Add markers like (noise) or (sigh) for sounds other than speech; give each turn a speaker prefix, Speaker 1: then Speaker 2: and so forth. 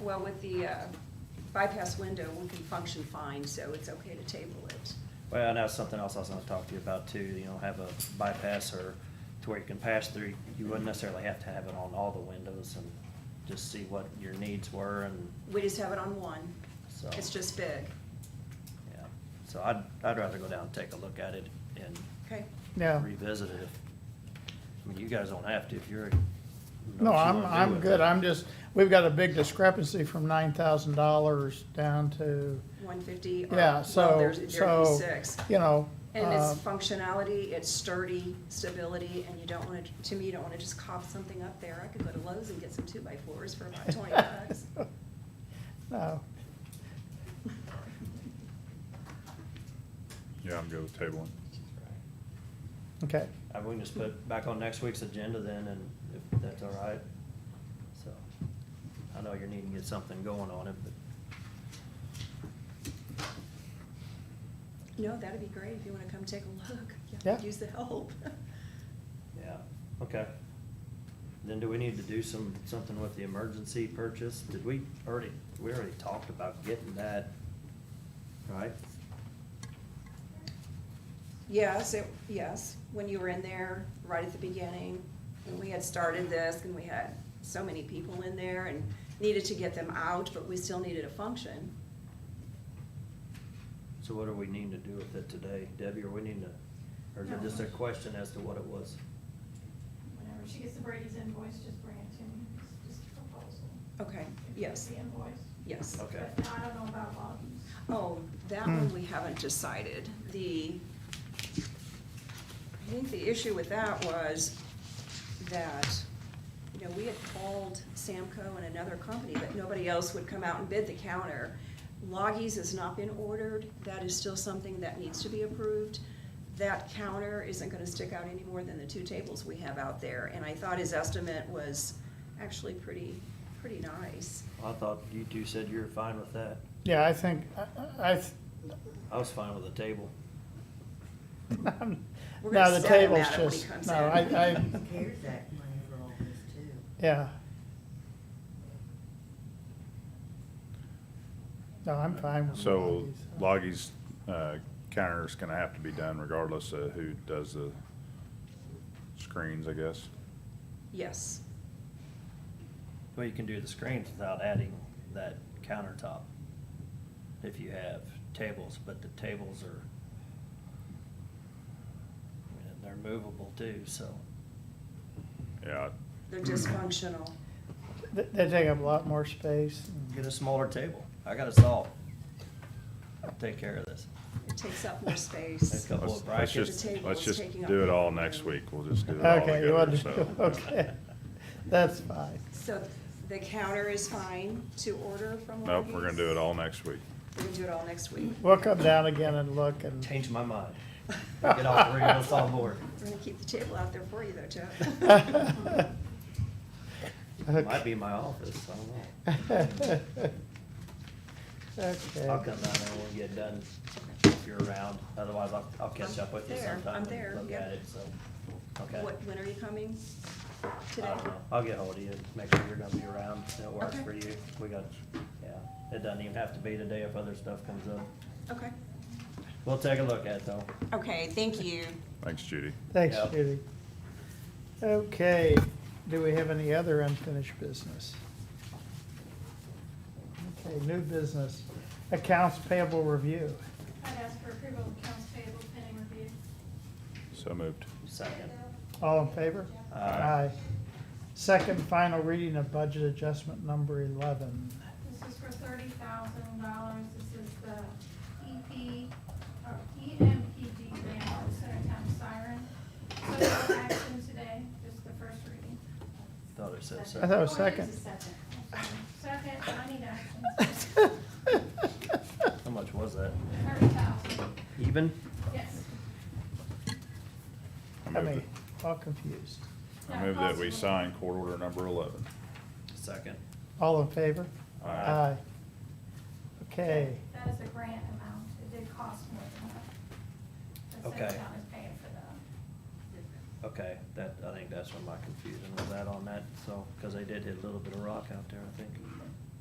Speaker 1: Well, with the uh, bypass window, we can function fine, so it's okay to table it.
Speaker 2: Well, and that's something else I was gonna talk to you about too, you know, have a bypass or to where you can pass through. You wouldn't necessarily have to have it on all the windows and just see what your needs were and,
Speaker 1: We just have it on one.
Speaker 2: So-
Speaker 1: It's just big.
Speaker 2: yeah. So I'd, I'd rather go down and take a look at it and
Speaker 1: Okay,
Speaker 3: Yeah.
Speaker 2: revisit it. if- I mean, you guys don't have to if you're.
Speaker 3: No, I'm, I'm good. I'm just, we've got a big discrepancy from nine thousand dollars down to,
Speaker 1: one fifty.
Speaker 3: yeah, so, so,
Speaker 1: Six.
Speaker 3: you know.
Speaker 1: And its
Speaker 3: uh, (laughs)
Speaker 1: functionality, its sturdy, stability, and you don't wanna, to me, you don't wanna just cop something up there. I could go to Lowe's and get some two by fours for about twenty
Speaker 3: (laughs)
Speaker 1: bucks.
Speaker 3: No,
Speaker 4: Yeah, I'm good with tabling.
Speaker 3: okay,
Speaker 2: I, Uh, we can just put back on next week's agenda then, and if that's all right, so. I know you're needing to get something going on it, but,
Speaker 1: No, that'd be great if you wanna come take a look.
Speaker 3: Yeah.
Speaker 1: Use the help. (laughs)
Speaker 2: yeah, okay. Then do we need to do some, something with the emergency purchase? Did we already, we already talked about getting that, right?
Speaker 1: Yes, it, yes, when you were in there, right at the beginning, when we had started this, and we had so many people in there and needed to get them out, but we still needed a function.
Speaker 2: So what do we need to do with it today? Debbie, or we need to, or is it just a question as to what it was?
Speaker 5: Whenever she gets the Brady's invoice, just bring it to me, it's just a proposal.
Speaker 1: Okay, yes,
Speaker 5: The invoice.
Speaker 1: yes.
Speaker 2: Okay.
Speaker 5: But I don't know about Bobby's.
Speaker 1: Oh, that one we haven't decided. The, I think the issue with that was that, you know, we had called Samco and another company, but nobody else would come out and bid the counter. Loggies has not been ordered. That is still something that needs to be approved. That counter isn't gonna stick out any more than the two tables we have out there. And I thought his estimate was actually pretty, pretty nice.
Speaker 2: I thought you two said you were fine with that.
Speaker 3: yeah, I think, I- I, (laughs) th-
Speaker 2: I was fine with the table.
Speaker 1: We're
Speaker 3: no,
Speaker 1: gonna
Speaker 3: the
Speaker 1: set him
Speaker 3: table's
Speaker 1: at it when he
Speaker 3: just,
Speaker 1: comes
Speaker 3: no,
Speaker 1: in.
Speaker 3: I, (laughs)
Speaker 1: (laughs)
Speaker 3: I,
Speaker 6: CARES Act money for all this too.
Speaker 3: yeah. No, I'm fine with.
Speaker 4: So
Speaker 3: Lockheed's.
Speaker 4: Loggy's uh, counter's gonna have to be done regardless of who does the screens, I guess.
Speaker 1: Yes.
Speaker 2: Well, you can do the screens without adding that countertop if you have tables, but the tables are, they're movable too, so.
Speaker 4: Yeah,
Speaker 1: They're dysfunctional.
Speaker 3: They, they take up a lot more space.
Speaker 2: Get a smaller table. I got us all. I'll take care of this.
Speaker 1: It takes up more
Speaker 2: Next
Speaker 1: space.
Speaker 2: couple
Speaker 4: let's,
Speaker 2: of brackets.
Speaker 4: let's just,
Speaker 1: The table
Speaker 4: let's
Speaker 1: is
Speaker 4: just
Speaker 1: taking up
Speaker 4: do it
Speaker 1: the
Speaker 4: all
Speaker 1: whole
Speaker 4: next
Speaker 1: room.
Speaker 4: week. We'll just do it all
Speaker 3: Okay, you
Speaker 4: together,
Speaker 3: want to, (laughs)
Speaker 4: so.
Speaker 3: okay, that's fine.
Speaker 1: So the counter is fine to order from
Speaker 4: Nope, we're gonna do it
Speaker 1: Walgreens?
Speaker 4: all next week.
Speaker 1: We're gonna do it all next week.
Speaker 3: We'll come down again and look and. (laughs)
Speaker 2: Change my mind. Get all three of us on board.
Speaker 1: We're gonna keep the table out there for you though, Jeff.
Speaker 3: (laughs)
Speaker 2: Might be my office, I don't know. I'll
Speaker 3: Okay,
Speaker 2: come down there when we get done, if you're around, otherwise I'll, I'll catch up with you
Speaker 1: I'm there, I'm
Speaker 2: sometime
Speaker 1: there,
Speaker 2: and look
Speaker 1: yep.
Speaker 2: at it, so, okay.
Speaker 1: What, when are you coming?
Speaker 2: I
Speaker 1: Today?
Speaker 2: don't know, Uh, I'll get hold of you, make sure you're gonna be around, and it works
Speaker 1: Okay.
Speaker 2: for you, we got, yeah, it doesn't even have to be today if other stuff comes up.
Speaker 1: Okay.
Speaker 2: We'll take a look at it though.
Speaker 1: Okay, thank you.
Speaker 4: Thanks, Judy.
Speaker 3: thanks,
Speaker 2: Yeah.
Speaker 3: Judy. Okay, do we have any other unfinished business? Okay, new business, accounts payable review.
Speaker 5: I'd ask for approval of accounts payable pending review.
Speaker 4: So moved.
Speaker 2: Second,
Speaker 3: All in favor?
Speaker 2: Aye.
Speaker 3: Second final reading of budget adjustment number eleven.
Speaker 5: This is for thirty thousand dollars, this is the EP, or E EMPD grant for Centertown Siren. So no action today, just the first reading. Oh,
Speaker 2: thought it said
Speaker 3: I thought it
Speaker 2: second.
Speaker 3: was second.
Speaker 5: Second, I need
Speaker 1: (laughs)
Speaker 5: action.
Speaker 2: How much was that?
Speaker 5: Thirty thousand,
Speaker 2: Even?
Speaker 5: yes.
Speaker 4: I
Speaker 3: I
Speaker 4: moved
Speaker 3: mean,
Speaker 4: it.
Speaker 3: all confused.
Speaker 4: I moved that we sign court order number eleven.
Speaker 2: Second.
Speaker 3: All in favor?
Speaker 4: Aye.
Speaker 3: Okay,
Speaker 5: That is a grant amount, it did cost more than that. The
Speaker 2: Okay.
Speaker 5: Centertown is paying for the,
Speaker 2: Okay, that, I think that's where my confusion was at on that, so, cause they did hit a little bit of rock out there, I think.